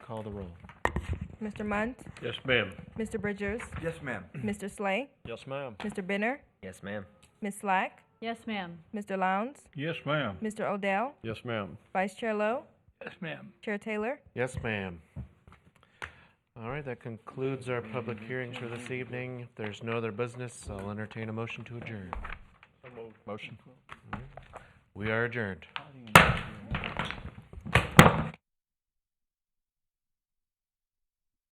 call the roll. Mr. Munt, Yes, ma'am. Mr. Bridgers, Yes, ma'am. Mr. Slay, Yes, ma'am. Mr. Benner, Yes, ma'am. Ms. Slack, Yes, ma'am. Mr. Lowndes, Yes, ma'am. Mr. Odell, Yes, ma'am. Vice Chair Lowe, Yes, ma'am. Chair Taylor, Yes, ma'am. All right, that concludes our public Mm-hmm. hearings for this evening. If there's no other business, I'll entertain a motion to adjourn. Motion. We are adjourned.